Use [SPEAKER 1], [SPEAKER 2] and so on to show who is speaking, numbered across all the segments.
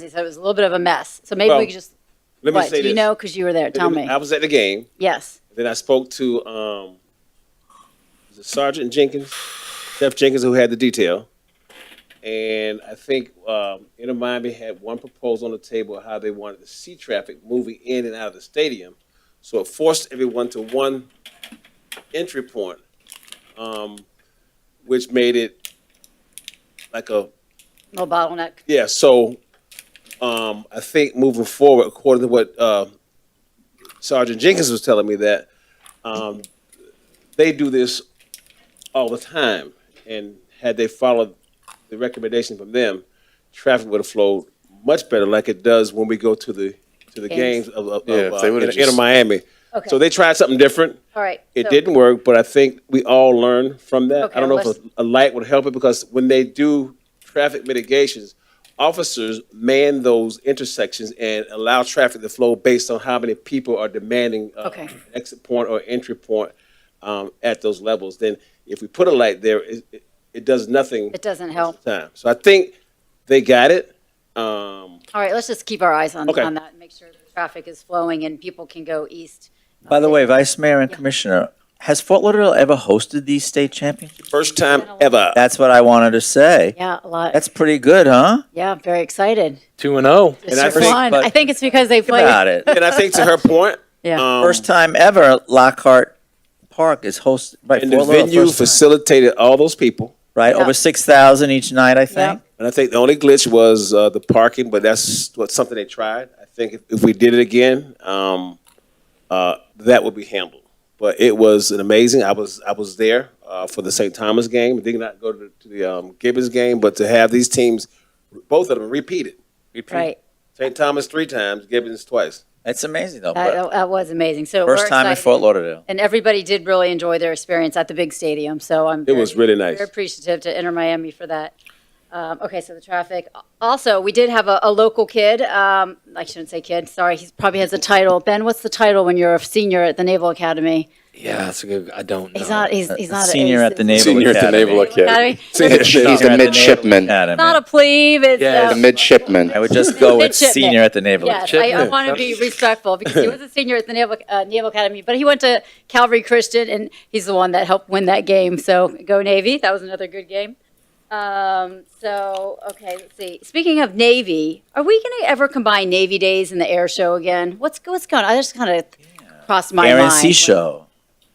[SPEAKER 1] He said it was a little bit of a mess. So maybe
[SPEAKER 2] Well,
[SPEAKER 1] we could just,
[SPEAKER 2] Let me
[SPEAKER 1] what,
[SPEAKER 2] say
[SPEAKER 1] do
[SPEAKER 2] this.
[SPEAKER 1] you know? Because you were there. Tell me.
[SPEAKER 2] I was at the game.
[SPEAKER 1] Yes.
[SPEAKER 2] Then I spoke to um, was it Sergeant Jenkins, Jeff Jenkins, who had the detail. And I think um, Inter Miami had one proposal on the table of how they wanted to see traffic moving in and out of the stadium. So it forced everyone to one entry point, um, which made it like a
[SPEAKER 1] No bottleneck.
[SPEAKER 2] yeah, so, um, I think moving forward, according to what, uh, Sergeant Jenkins was telling me that, um, they do this all the time. And had they followed the recommendation from them, traffic would have flowed much better like it does when we go to the, to the
[SPEAKER 1] Games.
[SPEAKER 2] games of, of,
[SPEAKER 3] Yeah, if
[SPEAKER 2] of,
[SPEAKER 3] they
[SPEAKER 2] uh,
[SPEAKER 3] would've
[SPEAKER 2] inter
[SPEAKER 3] just-
[SPEAKER 2] Miami.
[SPEAKER 1] Okay.
[SPEAKER 2] So they tried something different.
[SPEAKER 1] All right.
[SPEAKER 2] It
[SPEAKER 1] So-
[SPEAKER 2] didn't work, but I think we all learned from that.
[SPEAKER 1] Okay,
[SPEAKER 2] I don't know if
[SPEAKER 1] let's-
[SPEAKER 2] a, a light would help it because when they do traffic mitigations, officers man those intersections and allow traffic to flow based on how many people are demanding uh,
[SPEAKER 1] Okay.
[SPEAKER 2] exit point or entry point um, at those levels. Then if we put a light there, it, it, it does nothing.
[SPEAKER 1] It doesn't help.
[SPEAKER 2] most of the Time. So I think they got it. Um,
[SPEAKER 1] All right, let's just keep our eyes on,
[SPEAKER 2] Okay.
[SPEAKER 1] on that and make sure the traffic is flowing and people can go east.
[SPEAKER 4] By the way, Vice Mayor and Commissioner, has Fort Lauderdale ever hosted these state championships?
[SPEAKER 2] first time ever.
[SPEAKER 4] That's what I wanted to say.
[SPEAKER 1] Yeah, a lot.
[SPEAKER 4] That's pretty good, huh?
[SPEAKER 1] Yeah, very excited.
[SPEAKER 5] Two and oh.
[SPEAKER 1] It's
[SPEAKER 2] I
[SPEAKER 1] just
[SPEAKER 2] think-
[SPEAKER 1] fun.
[SPEAKER 4] but-
[SPEAKER 1] I think it's because they
[SPEAKER 4] Think about
[SPEAKER 1] played.
[SPEAKER 4] it.
[SPEAKER 2] And I think to her point,
[SPEAKER 1] Yeah.
[SPEAKER 2] um,
[SPEAKER 4] First time ever Lockhart Park is hosted, right,
[SPEAKER 2] and the
[SPEAKER 4] Fort Lauderdale,
[SPEAKER 2] venue
[SPEAKER 4] first time,
[SPEAKER 2] facilitated all those people.
[SPEAKER 4] right?
[SPEAKER 1] Yeah.
[SPEAKER 4] Over 6,000 each night, I think.
[SPEAKER 2] And I think the only glitch was uh, the parking, but that's what something they tried. I think if, if we did it again, um, uh, that would be handled. But it was an amazing. I was I was there uh, for the St. Thomas game. Did not go to the, to the um, Gibbons game, but to have these teams, both of them repeated. Repeat.
[SPEAKER 1] Right.
[SPEAKER 2] St. Thomas three times, Gibbons twice.
[SPEAKER 4] It's amazing, though. but
[SPEAKER 1] That, that was amazing. So we're
[SPEAKER 4] First time in
[SPEAKER 1] excited.
[SPEAKER 4] Fort Lauderdale.
[SPEAKER 1] And everybody did really enjoy their experience at the big stadium. So I'm.
[SPEAKER 2] It was
[SPEAKER 1] very-
[SPEAKER 2] really nice.
[SPEAKER 1] Very appreciative to Inter Miami for that. Um, okay, so the traffic. Also, we did have a, a local kid. Um, I shouldn't say kid. Sorry, he probably has a title. Ben, what's the title when you're a senior at the Naval Academy?
[SPEAKER 5] Yeah, that's a good. I don't know.
[SPEAKER 1] He's not. He's, he's not a
[SPEAKER 4] Senior
[SPEAKER 1] he's-
[SPEAKER 4] at the Naval
[SPEAKER 3] Senior at the
[SPEAKER 4] Academy.
[SPEAKER 3] Naval Academy.
[SPEAKER 1] Academy.
[SPEAKER 3] He's
[SPEAKER 4] Senior at the
[SPEAKER 3] a
[SPEAKER 4] Naval
[SPEAKER 3] midshipman.
[SPEAKER 4] Academy.
[SPEAKER 1] Not a plebe. It's
[SPEAKER 5] Yeah,
[SPEAKER 3] The
[SPEAKER 1] a
[SPEAKER 5] it's
[SPEAKER 3] midshipman.
[SPEAKER 4] I would just go with
[SPEAKER 1] Midshipman.
[SPEAKER 4] senior at the Naval Academy.
[SPEAKER 1] Yes, I, I
[SPEAKER 5] Chipman.
[SPEAKER 1] want to be respectful because he was a senior at the Naval, uh, Naval Academy, but he went to Calvary Christian, and he's the one that helped win that game. So go Navy! That was another good game. Um, so okay, let's see. Speaking of Navy, are we going to ever combine Navy Days and the Air Show again? What's what's going? on? I just kind of crossed my
[SPEAKER 4] Aaron
[SPEAKER 1] mind.
[SPEAKER 4] C. Show.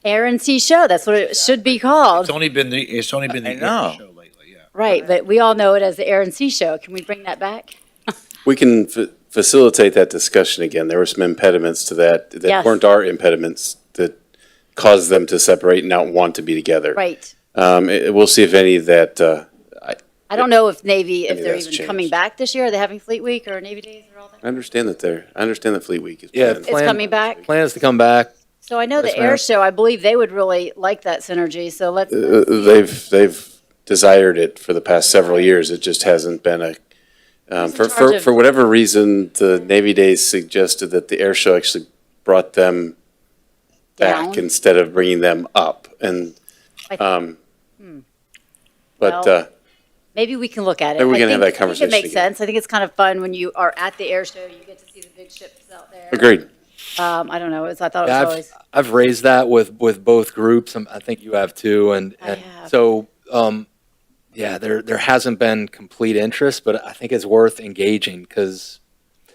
[SPEAKER 1] Aaron C. Show. That's what it should be called,
[SPEAKER 6] It's only been the it's only been
[SPEAKER 4] I
[SPEAKER 6] the
[SPEAKER 4] know.
[SPEAKER 6] air show lately. Yeah.
[SPEAKER 1] right? But we all know it as the Aaron C. Show. Can we bring that back?
[SPEAKER 3] We can fa- facilitate that discussion again. There were some impediments to that
[SPEAKER 1] Yes.
[SPEAKER 3] that weren't our impediments that caused them to separate and not want to be together.
[SPEAKER 1] Right.
[SPEAKER 3] Um, it- We'll see if any that, uh, I
[SPEAKER 1] I don't know if Navy, if
[SPEAKER 3] Maybe
[SPEAKER 1] they're
[SPEAKER 3] that's
[SPEAKER 1] even coming
[SPEAKER 3] changed.
[SPEAKER 1] back this year. Are they having Fleet Week or Navy Days or all that?
[SPEAKER 3] I understand that they're, I understand that Fleet Week is.
[SPEAKER 5] Yeah,
[SPEAKER 3] planned.
[SPEAKER 1] It's coming back.
[SPEAKER 5] Plans to come back.
[SPEAKER 1] So I know
[SPEAKER 5] Yes,
[SPEAKER 1] the air
[SPEAKER 5] ma'am.
[SPEAKER 1] show, I believe they would really like that synergy. So let's,
[SPEAKER 3] Uh, They've, they've desired it for the past several years. It just hasn't been a,
[SPEAKER 1] Who's in
[SPEAKER 3] um, for,
[SPEAKER 1] charge
[SPEAKER 3] for,
[SPEAKER 1] of-
[SPEAKER 3] for whatever reason, the Navy Days suggested that the air show actually brought them back
[SPEAKER 1] Down.
[SPEAKER 3] instead of bringing them up. And,
[SPEAKER 1] I think-
[SPEAKER 3] um, but,
[SPEAKER 1] Well,
[SPEAKER 3] uh,
[SPEAKER 1] maybe we can look at it.
[SPEAKER 3] Maybe we
[SPEAKER 1] I
[SPEAKER 3] can
[SPEAKER 1] think-
[SPEAKER 3] have
[SPEAKER 1] I think
[SPEAKER 3] that
[SPEAKER 1] It makes
[SPEAKER 3] conversation again.
[SPEAKER 1] sense. I think it's kind of fun when you are at the air show, you get to see the big ships out there.
[SPEAKER 3] agreed.
[SPEAKER 1] Um, I don't know, it's, I thought it
[SPEAKER 5] Yeah,
[SPEAKER 1] was
[SPEAKER 5] I've
[SPEAKER 1] always,
[SPEAKER 5] I've raised that with with both groups. Um, I think you have too, and,
[SPEAKER 1] I
[SPEAKER 5] and
[SPEAKER 1] have.
[SPEAKER 5] so um, yeah, there there hasn't been complete interest, but I think it's worth engaging because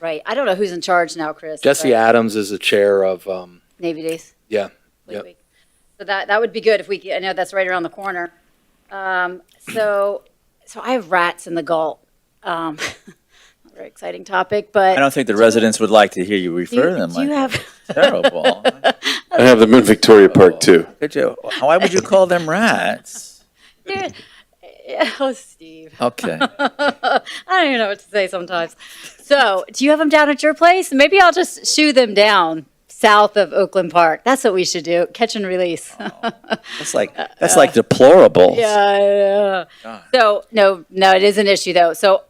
[SPEAKER 1] right. I don't know who's in charge now, Chris.
[SPEAKER 5] Jesse
[SPEAKER 1] but
[SPEAKER 5] Adams is the chair of um,
[SPEAKER 1] Navy Days.
[SPEAKER 5] yeah.
[SPEAKER 1] Fleet
[SPEAKER 5] Yep.
[SPEAKER 1] Week. So that, that would be good if we, could- I know that's right around the corner. Um, so, so I have rats in the gullet. Um, not a very exciting topic, but.
[SPEAKER 4] I don't think the
[SPEAKER 1] Do you-
[SPEAKER 4] residents would like to hear you
[SPEAKER 1] do you-
[SPEAKER 4] refer to them
[SPEAKER 1] Do
[SPEAKER 4] like
[SPEAKER 1] you
[SPEAKER 4] that.
[SPEAKER 1] have?
[SPEAKER 4] Terrible.
[SPEAKER 3] I have them in Victoria Park too.
[SPEAKER 4] Could you, why would you call them rats?
[SPEAKER 1] Dude, oh, Steve.
[SPEAKER 4] Okay.
[SPEAKER 1] I don't even know what to say sometimes. So, do you have them down at your place? Maybe I'll just shoo them down south of Oakland Park. That's what we should do. Catch and release.
[SPEAKER 4] That's like, that's like deplorable.
[SPEAKER 1] yeah. I know. So, no, no, it is an issue though. So,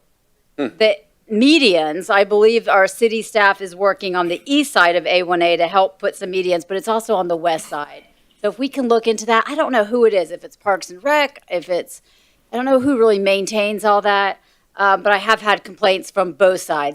[SPEAKER 1] the medians, I believe our city staff is working on the east side of A1A to help put some medians, but it's also on the west side. So, if we can look into that, I don't know who it is, if it's Parks and Rec, if it's, I don't know who really maintains all that. Um, but I have had complaints from both sides.